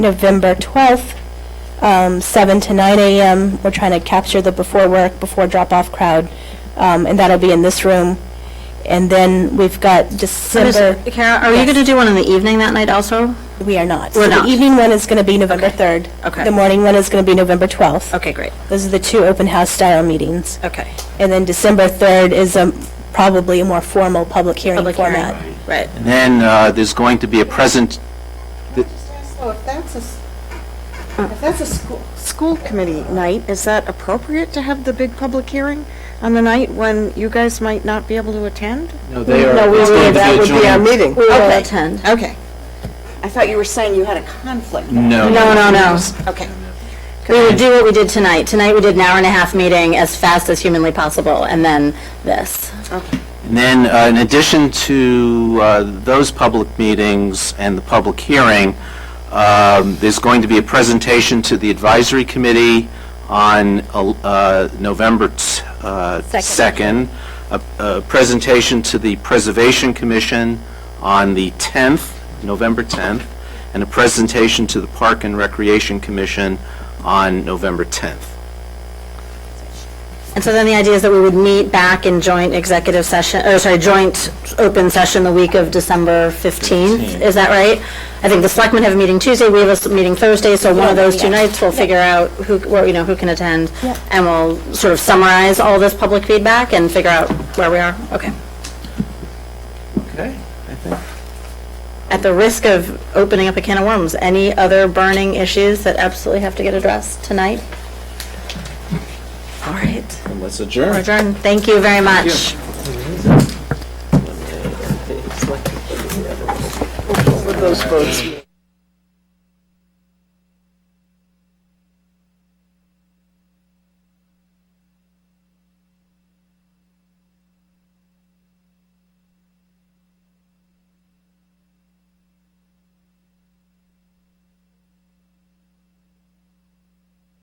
November 12th, um, 7 to 9 a.m. We're trying to capture the before work, before drop-off crowd, um, and that'll be in this room. And then we've got So does- December, Kara, are you Yes. going to do one in the evening that night also? we are not. We're So not. the evening one is going to be November 3rd. Okay. The morning one is going to be November 12th. Okay, great. Those are the two open house style meetings. Okay. And then December 3rd is um, probably a more formal public hearing Public hearing. format. Right. Then uh, there's going to be a present, So if that's a, s- if that's a school, Uh, school committee night, is that appropriate to have the big public hearing on the night when you guys might not be able to attend? no, they are, it's going That to would be be our a joint. meeting. We will attend. Okay. I thought you were saying you had a conflict. No, No, no, no. Okay. We would do what we did tonight. Tonight, we did an hour and a half meeting as fast as humanly possible, and then this. and then uh, in addition to uh, those public meetings and the public hearing, um, there's going to be a presentation to the advisory committee on uh, November t- uh, 2nd, a a presentation to the Preservation Commission on the 10th, November 10th, and a presentation to the Park and Recreation Commission on November 10th. And so then the idea is that we would meet back in joint executive session, or sorry, joint open session the week of December 15th. Is that right? I think the selectmen have a meeting Tuesday, we have a s- meeting Thursday, so one of those two nights, we'll figure out who, well, you know, who can attend, and we'll sort of summarize all this public feedback and figure out where we are. Okay. Okay, I think At the risk of opening up a can of worms, any other burning issues that absolutely have to get addressed tonight? All right, Let's adjourn. we're adjourned. Thank you very much. Those votes.